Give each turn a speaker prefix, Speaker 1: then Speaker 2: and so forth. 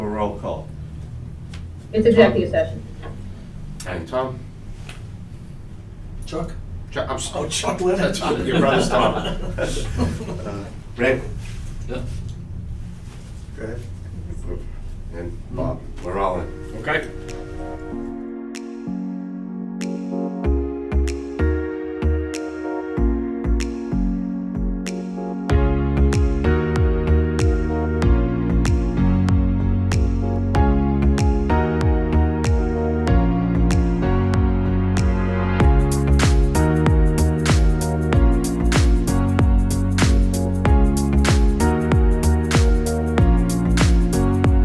Speaker 1: roll call.
Speaker 2: It's executive session.
Speaker 3: Hey, Tom?
Speaker 4: Chuck?
Speaker 3: Chuck, I'm sorry.
Speaker 4: Oh, Chuck Leonard.
Speaker 3: Your brother's Tom.
Speaker 1: Uh, Rick?
Speaker 4: Yeah.